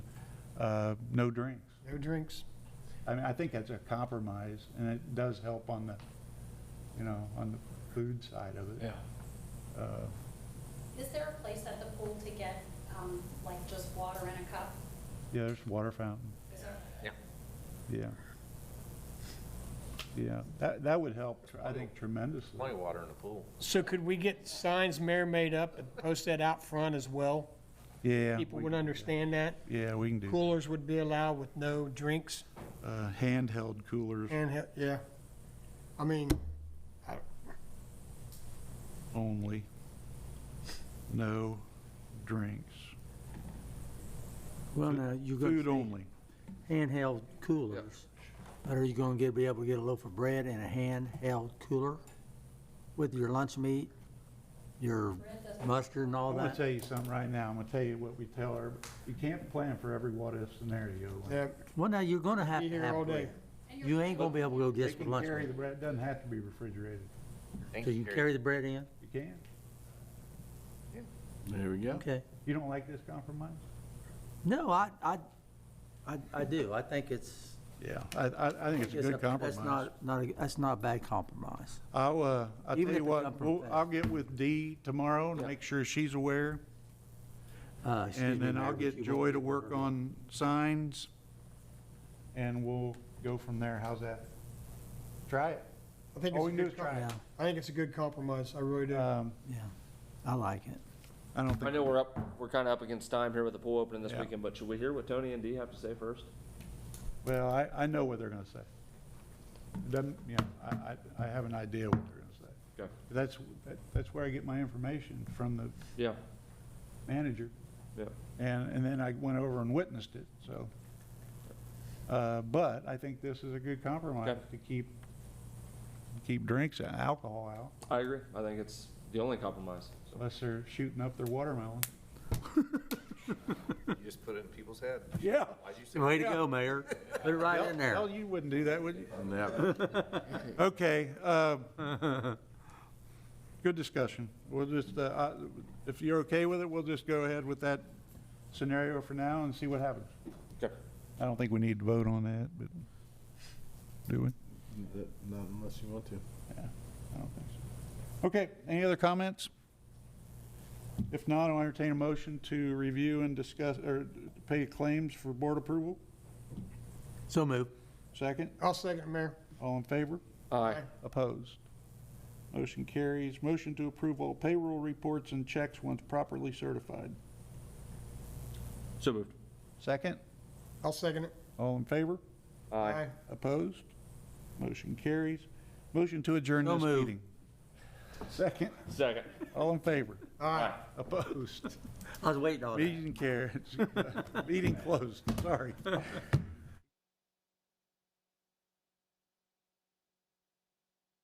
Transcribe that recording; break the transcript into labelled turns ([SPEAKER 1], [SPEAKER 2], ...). [SPEAKER 1] uh, no drinks.
[SPEAKER 2] No drinks.
[SPEAKER 1] I mean, I think that's a compromise, and it does help on the, you know, on the food side of it.
[SPEAKER 3] Yeah.
[SPEAKER 1] Uh,
[SPEAKER 4] Is there a place at the pool to get, um, like just water in a cup?
[SPEAKER 1] Yeah, there's water fountain,
[SPEAKER 4] Is there?
[SPEAKER 1] yeah. Yeah, that, that would help, tr- I think tremendously.
[SPEAKER 3] Plenty of water in the pool.
[SPEAKER 2] So could we get signs mayor made up and post that out front as well?
[SPEAKER 1] Yeah.
[SPEAKER 2] People
[SPEAKER 1] we
[SPEAKER 2] would
[SPEAKER 1] can do that.
[SPEAKER 2] understand that.
[SPEAKER 1] Yeah, we can do, that.
[SPEAKER 2] Coolers would be allowed with no drinks
[SPEAKER 1] Uh, handheld coolers
[SPEAKER 2] and, he- yeah. I mean, I-
[SPEAKER 1] only, no drinks,
[SPEAKER 5] Well, now, you got
[SPEAKER 1] food
[SPEAKER 5] to
[SPEAKER 1] only.
[SPEAKER 5] say handheld coolers. But are you gonna get, be able to get a loaf of bread in a handheld cooler with your lunch meat, your mustard and all
[SPEAKER 1] I'm gonna
[SPEAKER 5] that?
[SPEAKER 1] tell you something right now, I'm gonna tell you what we tell her, you can't plan for every what-if scenario.
[SPEAKER 2] yeah,
[SPEAKER 5] Well, now, you're gonna have
[SPEAKER 2] be
[SPEAKER 5] to
[SPEAKER 2] here
[SPEAKER 5] have
[SPEAKER 2] all day.
[SPEAKER 5] bread. You ain't gonna be able to go
[SPEAKER 1] They
[SPEAKER 5] just for
[SPEAKER 1] can
[SPEAKER 5] lunch.
[SPEAKER 1] carry the
[SPEAKER 5] meat.
[SPEAKER 1] bread, doesn't have to be refrigerated,
[SPEAKER 3] Thank
[SPEAKER 5] So you
[SPEAKER 3] Gary.
[SPEAKER 5] carry the bread in?
[SPEAKER 1] you can.
[SPEAKER 6] There we go.
[SPEAKER 5] Okay.
[SPEAKER 1] You don't like this compromise?
[SPEAKER 5] No, I, I, I, I do. I think it's.
[SPEAKER 1] Yeah, I, I, I think it's a good compromise.
[SPEAKER 5] That's not, not, a- that's not a bad compromise.
[SPEAKER 1] I'll, uh, I'll tell you
[SPEAKER 5] Even if it
[SPEAKER 1] what,
[SPEAKER 5] come from
[SPEAKER 1] we'll-
[SPEAKER 5] fast.
[SPEAKER 1] I'll get with Dee tomorrow and make sure she's aware,
[SPEAKER 5] Uh, excuse
[SPEAKER 1] and
[SPEAKER 5] me,
[SPEAKER 1] then
[SPEAKER 5] Mayor,
[SPEAKER 1] I'll
[SPEAKER 5] but
[SPEAKER 1] get
[SPEAKER 5] you
[SPEAKER 1] Joy
[SPEAKER 5] won't
[SPEAKER 1] to
[SPEAKER 5] be
[SPEAKER 1] work
[SPEAKER 5] here.
[SPEAKER 1] on signs, and we'll go from there, how's that? Try it.
[SPEAKER 2] I think
[SPEAKER 1] All
[SPEAKER 2] it's
[SPEAKER 1] we
[SPEAKER 2] a
[SPEAKER 1] can do is
[SPEAKER 2] good,
[SPEAKER 1] try
[SPEAKER 2] com-
[SPEAKER 5] Yeah,
[SPEAKER 1] it.
[SPEAKER 2] I think it's a good compromise. I really do.
[SPEAKER 1] Um,
[SPEAKER 5] yeah. I like it.
[SPEAKER 1] I don't
[SPEAKER 7] I
[SPEAKER 1] think,
[SPEAKER 7] know we're up, we're kind of up against time here with the pool opening this
[SPEAKER 1] Yeah.
[SPEAKER 7] weekend, but should we hear what Tony and Dee have to say first?
[SPEAKER 1] well, I, I know what they're gonna say. Doesn't, you know, I, I, I have an idea what they're gonna say.
[SPEAKER 7] Okay.
[SPEAKER 1] That's, that- that's where I get my information, from the
[SPEAKER 7] Yeah,
[SPEAKER 1] manager.
[SPEAKER 7] yeah.
[SPEAKER 1] And, and then I went over and witnessed it, so. Uh, But I think this is a good compromise
[SPEAKER 7] Okay.
[SPEAKER 1] to keep, keep drinks and alcohol out,
[SPEAKER 7] I agree. I think it's the only compromise. so.
[SPEAKER 1] unless they're shooting up their watermelon.
[SPEAKER 3] You just put it in people's head.
[SPEAKER 1] Yeah.
[SPEAKER 3] Why'd you say?
[SPEAKER 5] Way to go, Mayor. Put it right in there.
[SPEAKER 1] Hell, you wouldn't do that, would you?
[SPEAKER 6] Never.
[SPEAKER 1] Okay. uh, Good discussion. We'll just, uh, I- if you're okay with it, we'll just go ahead with that scenario for now and see what happens.
[SPEAKER 7] Okay.
[SPEAKER 1] I don't think we need to vote on that, but do we?
[SPEAKER 6] Not unless you want to.
[SPEAKER 1] I don't think so. Okay, any other comments? If not, I'll entertain a motion to review and discuss, or pay claims for board approval.
[SPEAKER 5] So move.
[SPEAKER 1] Second,
[SPEAKER 2] I'll second, it, Mayor.
[SPEAKER 1] all in favor?
[SPEAKER 7] Aye.
[SPEAKER 1] Opposed? Motion carries. Motion to approve all payroll reports and checks once properly certified.
[SPEAKER 7] So moved.
[SPEAKER 1] Second,
[SPEAKER 2] I'll second it.
[SPEAKER 1] all in favor?
[SPEAKER 7] Aye.
[SPEAKER 1] Opposed? Motion carries. Motion to adjourn
[SPEAKER 5] So
[SPEAKER 1] this
[SPEAKER 5] moved.
[SPEAKER 1] meeting. Second,
[SPEAKER 7] Second.
[SPEAKER 1] all in favor?
[SPEAKER 2] All right.
[SPEAKER 1] Opposed?
[SPEAKER 5] I was waiting on it.
[SPEAKER 1] Meeting carries. Meeting closed, sorry.